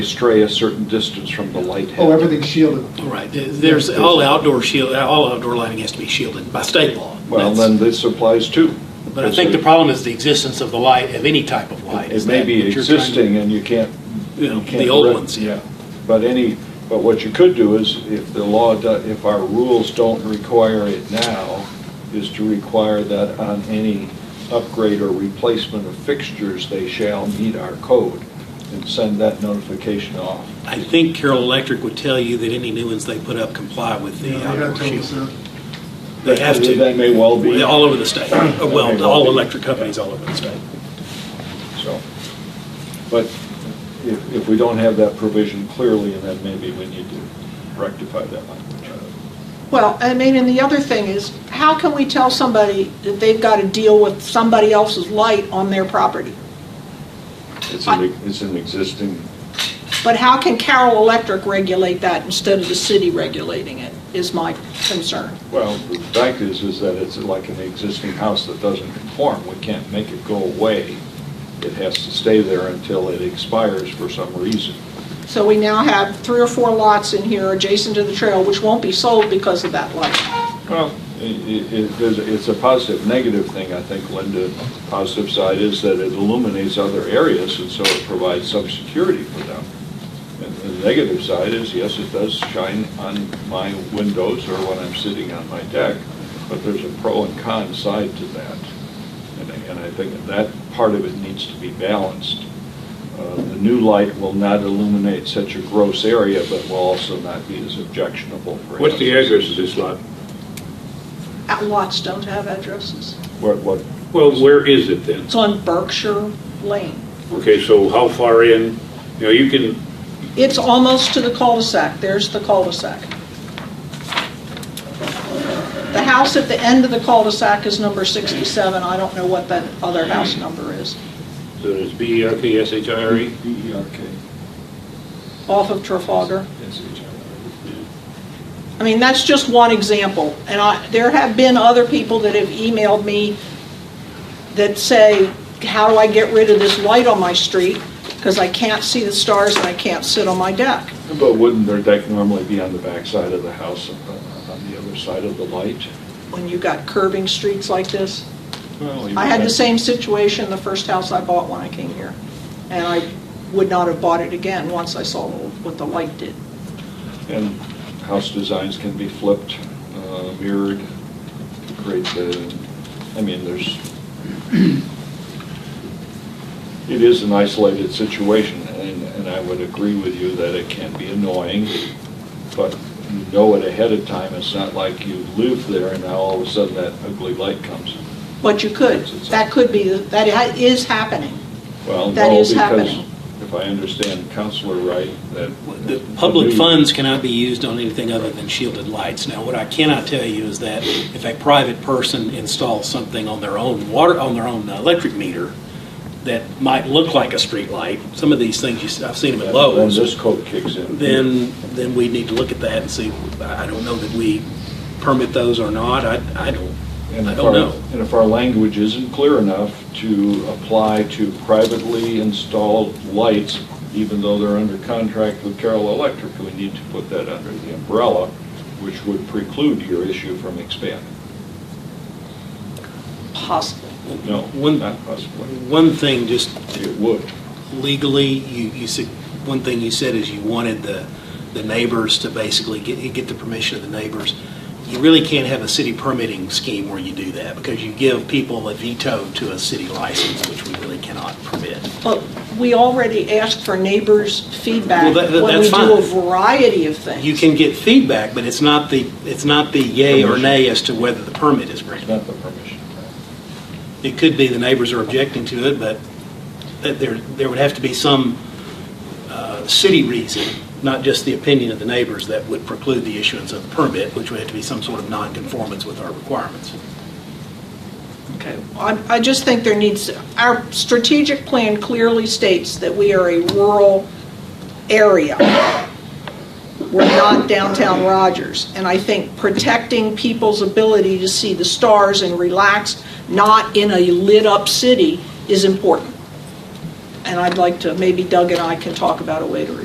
stray a certain distance from the light head. Oh, everything's shielded. All right, there- there's, all outdoor shield, all outdoor lighting has to be shielded by state law. Well, That's- then this applies too. But I think the problem is the existence of the light, of any type of light. It Is may that be what you're trying to- existing and you can't. You know, you can't the old direct- ones, yeah. But any, but what you could do is, if the law, do- if our rules don't require it now, is to require that on any upgrade or replacement of fixtures, they shall meet our code and send that notification off. I think Carroll Electric would tell you that any new ones they put up comply with Yeah, the they gotta outdoor tell us shield. that. They have to. That may well be. All over the state. That Well, may well all be. electric companies all over the state. So, but if, if we don't have that provision clearly, then maybe we need to rectify that language. Well, I mean, and the other thing is, how can we tell somebody that they've got to deal with somebody else's light on their property? It's an, it's an existing, But how can Carroll Electric regulate that instead of the city regulating it, is my concern. well, the fact is, is that it's like an existing house that doesn't conform. We can't make it go away. It has to stay there until it expires for some reason. So we now have three or four lots in here adjacent to the trail, which won't be sold because of that light. Well, i- i- it, there's- it's a positive, negative thing, I think, Linda. The Positive side is that it illuminates other areas, and so it provides some security for them. And the negative side is, yes, it does shine on my windows or when I'm sitting on my deck, but there's a pro and con side to that. And I- And I think that part of it needs to be balanced. Uh, The new light will not illuminate such a gross area, but will also not be as objectionable for. What's the animals. address of this lot? Out Lots don't have addresses. What, what, Well, where is it then? It's on Berkshire Lane. Okay, so how far in, you know, you can, It's almost to the cul-de-sac, there's the cul-de-sac. The house at the end of the cul-de-sac is number 67, I don't know what that other house number is, so it's B E R K S H I R E? off of Trafalgar. I mean, that's just one example, and I, there have been other people that have emailed me that say, how do I get rid of this light on my street? Because I can't see the stars and I can't sit on my deck. But wouldn't their deck normally be on the back side of the house, uh, on the other side of the light? When you've got curving streets like this, I had the same situation, the first house I bought when I came here, and I would not have bought it again once I saw what the light did. And house designs can be flipped, uh, mirrored, create the, I mean, there's, it is an isolated situation, and, and I would agree with you that it can be annoying, but you know it ahead of time, it's not like you live there and now all of a sudden that ugly light comes. But you could, that could be, that i- is happening. Well, That no, is because happening. if I understand Counselor right, that. The public new- funds cannot be used on anything other than shielded lights. Now, what I cannot tell you is that if a private person installs something on their own water, on their own uh, electric meter, that might look like a street light, some of these things, you s- I've seen them at When Lowe's. this code kicks in. then, then we need to look at that and see, I I don't know that we permit those or not, I, I don't, And I if our- don't know. And if our language isn't clear enough to apply to privately installed lights, even though they're under contract with Carroll Electric, we need to put that under the umbrella, which would preclude your issue from expanding. Possible. No, One- not possibly. One thing, just It would. legally, you, you said, one thing you said is you wanted the, the neighbors to basically get, get the permission of the neighbors. You really can't have a city permitting scheme where you do that, because you give people a veto to a city license, which we really cannot permit. But we already asked for neighbors' Well, feedback that- that- when we that's do a fine. variety of things. You can get feedback, but it's not the, it's not the yay or nay as to whether the permit is It's granted. not the permission. It could be the neighbors are objecting to it, but that there, there would have to be some uh, city reason, not just the opinion of the neighbors, that would preclude the issuance of the permit, which would have to be some sort of nonconformance with our requirements. Okay, I I just think there needs, our strategic plan clearly states that we are a rural area. We're not downtown Rogers. And I think protecting people's ability to see the stars and relax, not in a lit-up city, is important. And I'd like to, maybe Doug and I can talk about a way to